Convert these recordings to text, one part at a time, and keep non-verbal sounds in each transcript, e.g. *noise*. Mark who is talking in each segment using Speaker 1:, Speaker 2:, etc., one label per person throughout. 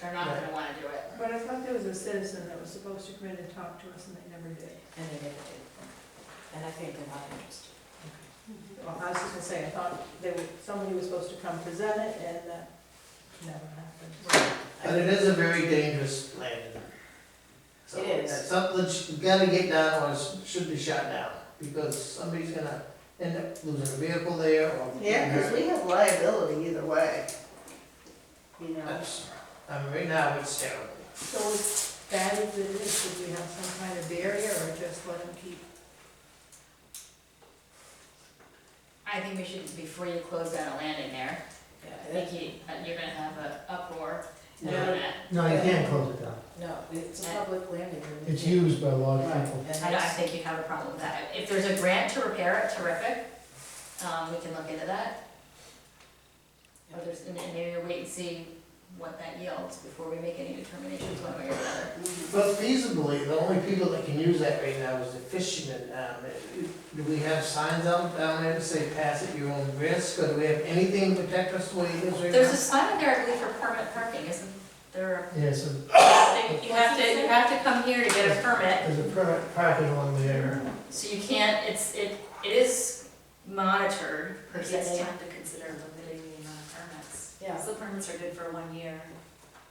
Speaker 1: They're not gonna wanna do it.
Speaker 2: But I thought there was a citizen that was supposed to come in and talk to us and they never did.
Speaker 3: And they never did. And I think they're not interested.
Speaker 2: Well, I was just gonna say, I thought there was, somebody was supposed to come present it and that never happened.
Speaker 4: But it is a very dangerous landing. So
Speaker 3: It is.
Speaker 4: That's something that you gotta get down or it should be shot down, because somebody's gonna end up losing a vehicle there or.
Speaker 5: Yeah, because we have liability either way. You know,
Speaker 4: That's, I mean, right now, it's terrible.
Speaker 2: So as bad as it is, should we have some kind of barrier or just let them keep?
Speaker 1: I think we should, before you close down a landing there, I
Speaker 3: Yeah,
Speaker 1: think you, uh, you're gonna have an uproar doing
Speaker 3: No.
Speaker 1: that.
Speaker 6: No, you can't close it down.
Speaker 3: No, it's a public landing. and we
Speaker 6: It's
Speaker 3: can't-
Speaker 6: used by a lot of
Speaker 3: Right,
Speaker 6: people.
Speaker 3: and
Speaker 1: I don't, I
Speaker 3: that's-
Speaker 1: think you'd have a problem with that. If there's a grant to repair it, terrific, um, we can look into that. Or there's, and and maybe wait and see what that yields before we make any determinations one way or the other.
Speaker 4: But feasibly, the only people that can use that right now is the fishermen. Um, Do we have signs out down there that say pass at your own risk, or do we have anything to protect us the way it is right now?
Speaker 1: There's a sign up there, I believe, for permit parking, isn't
Speaker 3: *coughs*
Speaker 1: there?
Speaker 6: Yeah, so
Speaker 1: a- You have to, you have to come here to get a permit,
Speaker 6: there's a per- parking on there.
Speaker 1: so you can't, it's, it, it is monitored per
Speaker 7: Maybe it's
Speaker 1: se.
Speaker 7: time to consider limiting the amount of permits.
Speaker 3: Yeah,
Speaker 7: So permits are good for one year,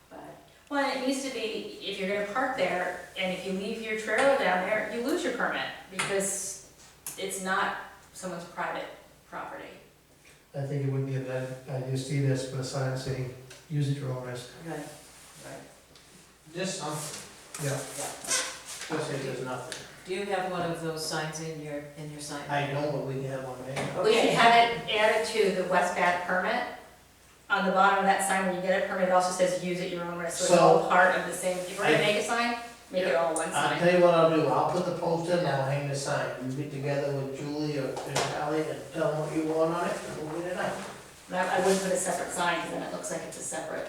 Speaker 7: but
Speaker 1: Well, and it needs to be, if you're gonna park there, and if you leave your trailer down there, you lose your permit, because it's not someone's private property.
Speaker 6: I think it would be a bad idea to see this, but a sign saying, use at your own risk.
Speaker 3: right, right.
Speaker 4: Just something.
Speaker 6: Yeah.
Speaker 4: Just say there's nothing.
Speaker 3: Do you have one of those signs in your, in your sign?
Speaker 4: I know what we have on there.
Speaker 1: We should have it added to the West Bath permit. On the bottom of that sign, when you get a permit, it also says use at your own risk, so it's
Speaker 4: So-
Speaker 1: all part of the same, if we're gonna
Speaker 4: I- Uh,
Speaker 1: make a sign, make it all one
Speaker 4: I'll
Speaker 1: sign.
Speaker 4: tell you what I'll do, I'll put the poster and I'll hang the sign, you get together with Julie or Ally and tell them what you want on it, and we'll get it out.
Speaker 1: But I I wouldn't put a separate sign, because then it looks like it's a separate.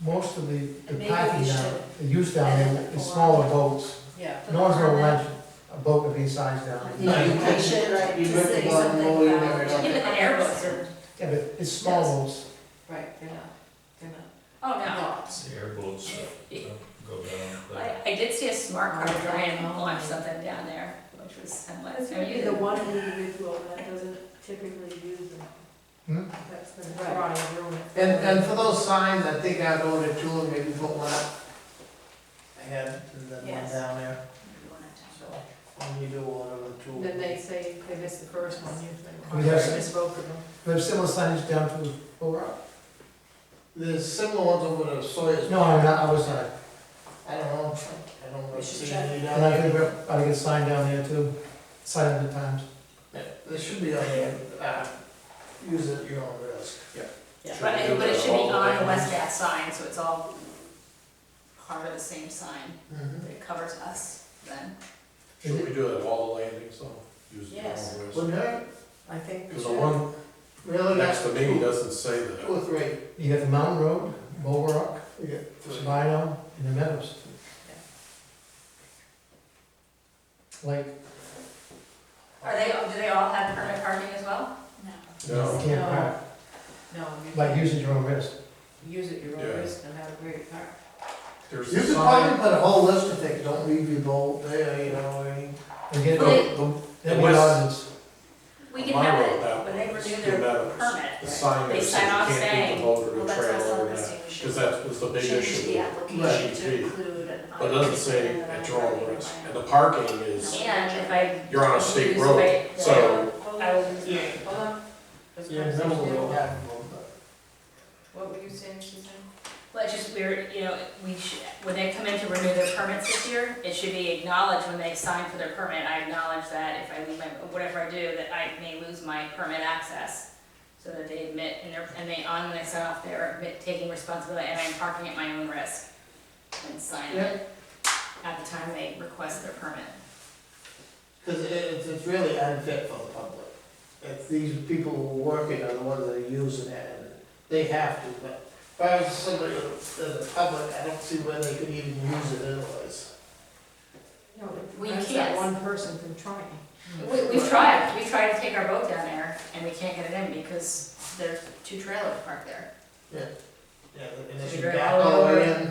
Speaker 6: Most of the, the
Speaker 3: Maybe we
Speaker 6: parking down,
Speaker 3: should-
Speaker 6: the use down there is smaller boats.
Speaker 3: Yeah.
Speaker 6: No one's gonna let a boat with these signs down. there.
Speaker 4: No, you
Speaker 7: We
Speaker 4: can't.
Speaker 7: should, like,
Speaker 4: You
Speaker 7: to
Speaker 4: rip
Speaker 7: say
Speaker 4: the bottom
Speaker 7: something
Speaker 4: roll, you
Speaker 7: about-
Speaker 4: never know.
Speaker 3: *laughs*
Speaker 1: Even the airboats are,
Speaker 6: Yeah, but it's small boats.
Speaker 3: Right, they're not, they're not.
Speaker 1: oh no.
Speaker 8: The airboats uh, go down. but-
Speaker 1: I, I did see a smart car trying to launch something down there, which was, I'm like, are
Speaker 2: Maybe
Speaker 1: you
Speaker 2: the one individual that doesn't typically use them.
Speaker 6: Hmm?
Speaker 2: That's the
Speaker 3: Right.
Speaker 2: try and ruin it.
Speaker 4: And, and for those signs, I think I'd order two and maybe put one up. I had the one
Speaker 7: Yes.
Speaker 4: down there,
Speaker 7: we want to.
Speaker 4: so when you do order the two.
Speaker 2: Then they say they missed the first one, usually.
Speaker 6: We have some-
Speaker 2: Misspoke of them.
Speaker 6: We have similar signs down to Bull Rock.
Speaker 4: There's similar ones over the Sawyer's.
Speaker 6: No, I'm not, I was not.
Speaker 4: I don't know, I don't
Speaker 3: We
Speaker 4: know,
Speaker 3: should
Speaker 4: see
Speaker 3: check.
Speaker 4: any down
Speaker 6: And I
Speaker 4: there.
Speaker 6: think we're, I get a sign down there too, sign of the times.
Speaker 4: Yeah, There should be on there, uh, use it at your own risk. Yeah.
Speaker 1: But it, but it should be on the West Bath sign, so it's all part of the same sign,
Speaker 4: Mm-hmm.
Speaker 1: it covers us then.
Speaker 8: Should we do it at all the landings though? Use the
Speaker 3: Yes.
Speaker 8: normal ways?
Speaker 4: Wouldn't hurt,
Speaker 3: I think we
Speaker 8: Because the
Speaker 3: should.
Speaker 8: one
Speaker 4: really,
Speaker 8: next
Speaker 4: that's
Speaker 8: to me doesn't say that.
Speaker 4: two or three.
Speaker 6: You got the Mountain Road, Bull Rock,
Speaker 4: Yeah.
Speaker 6: Sabino, and the Meadows. Like,
Speaker 1: Are they, do they all have permit parking as well?
Speaker 6: you
Speaker 8: No,
Speaker 6: can't park,
Speaker 3: No, you
Speaker 6: like
Speaker 3: can't.
Speaker 6: using your own risk.
Speaker 3: Use it your
Speaker 8: Yeah.
Speaker 3: own risk and have a great park.
Speaker 8: there's
Speaker 4: You
Speaker 8: a
Speaker 4: could probably
Speaker 8: sign.
Speaker 4: put a whole list of things, don't leave your bolt there, you know, or any.
Speaker 6: And get,
Speaker 1: Well,
Speaker 6: that'd
Speaker 1: they-
Speaker 8: The-
Speaker 6: be an
Speaker 8: Unless-
Speaker 6: ordinance.
Speaker 1: We can
Speaker 8: My
Speaker 1: have
Speaker 8: road, that
Speaker 1: it, when they
Speaker 8: one,
Speaker 1: renew
Speaker 8: it's
Speaker 1: their
Speaker 8: Meadows.
Speaker 1: permit,
Speaker 8: The sign
Speaker 1: They
Speaker 8: that says
Speaker 1: sign
Speaker 8: you
Speaker 1: off
Speaker 8: can't
Speaker 1: saying,
Speaker 8: keep the boat or
Speaker 7: Well,
Speaker 8: the
Speaker 7: that's what I was
Speaker 8: trailer
Speaker 7: telling
Speaker 8: in
Speaker 7: Christine,
Speaker 8: that.
Speaker 7: we should
Speaker 8: Because that was the big
Speaker 7: change the
Speaker 8: issue.
Speaker 7: application to
Speaker 8: Right.
Speaker 7: include an.
Speaker 8: But it doesn't say
Speaker 7: unrestricted
Speaker 8: at your own
Speaker 7: unrequited
Speaker 8: risk. And
Speaker 7: requirement.
Speaker 8: the parking is,
Speaker 1: and if I.
Speaker 8: you're on a state
Speaker 1: use
Speaker 8: road,
Speaker 1: my-
Speaker 8: so
Speaker 1: I will use my-
Speaker 3: Hold on. Let's
Speaker 4: Yeah,
Speaker 3: go.
Speaker 4: that would be helpful, but-
Speaker 3: What were you saying, Suzanne?
Speaker 1: Well, it's just weird, you know, we should, when they come in to renew their permits this year, it should be acknowledged when they sign for their permit, I acknowledge that if I leave my, whatever I do, that I may lose my permit access. So that they admit, and they're, and they, on when they sign off, they're admit, taking responsibility, and I'm parking at my own risk. And sign it at the time they request their permit.
Speaker 4: Because it's, it's really unfit for the public. If these people who are working are the ones that are using it, and they have to, but if I was somebody in the public, I don't see where they could even use it otherwise.
Speaker 2: No, but
Speaker 1: We
Speaker 2: that's
Speaker 1: can't.
Speaker 2: that one person from trying.
Speaker 1: We, we've tried, we tried to take our boat down there, and we can't get it in because there's two trailers parked there.
Speaker 4: Yeah, and they
Speaker 1: Should
Speaker 4: should
Speaker 1: we
Speaker 4: back
Speaker 1: all
Speaker 4: all the